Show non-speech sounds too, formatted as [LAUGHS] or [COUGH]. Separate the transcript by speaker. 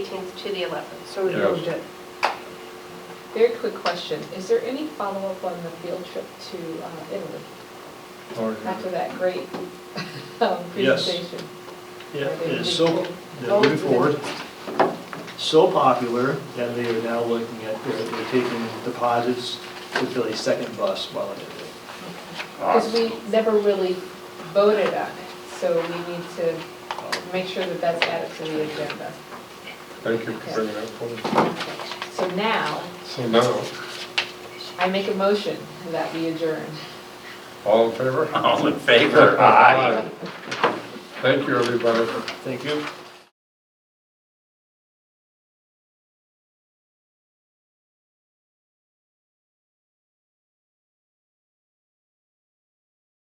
Speaker 1: 18th to the 11th.
Speaker 2: So we
Speaker 3: Yeah.
Speaker 2: moved it.
Speaker 4: Very quick question, is there any follow-up on the field trip to uh, Italy
Speaker 3: Or-
Speaker 4: after that great [LAUGHS] um,
Speaker 3: Uh-huh. Yes.
Speaker 4: presentation?
Speaker 3: Yeah,
Speaker 4: Are they
Speaker 3: it is
Speaker 4: really
Speaker 3: so,
Speaker 4: cool?
Speaker 3: they're moving forward, so popular that they are now looking at, they're they're taking deposits to fill a second bus while in Italy.
Speaker 4: Because we never really voted on it, so we need to make sure that that's added to the agenda.
Speaker 5: Thank you for bringing that forward.
Speaker 4: So now,
Speaker 5: So now,
Speaker 4: I make a motion that we adjourn.
Speaker 5: all in favor?
Speaker 6: All in favor? Aye.
Speaker 5: Thank you, everybody.
Speaker 3: Thank you.